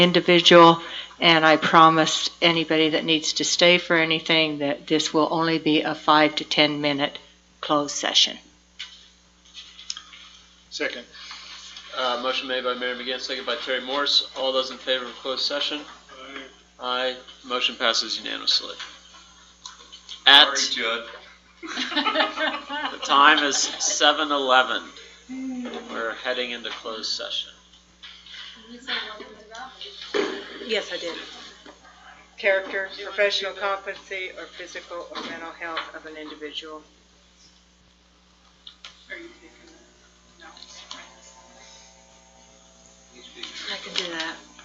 individual, and I promised anybody that needs to stay for anything that this will only be a five to 10-minute closed session. Second. Uh, motion made by Mary McGinn, second by Terry Morse. All those in favor of closed session? Aye. Motion passes unanimously. At, Judd. the time is seven eleven. We're heading into closed session. Yes, I did. Character, professional competency, or physical or mental health of an individual. I can do that.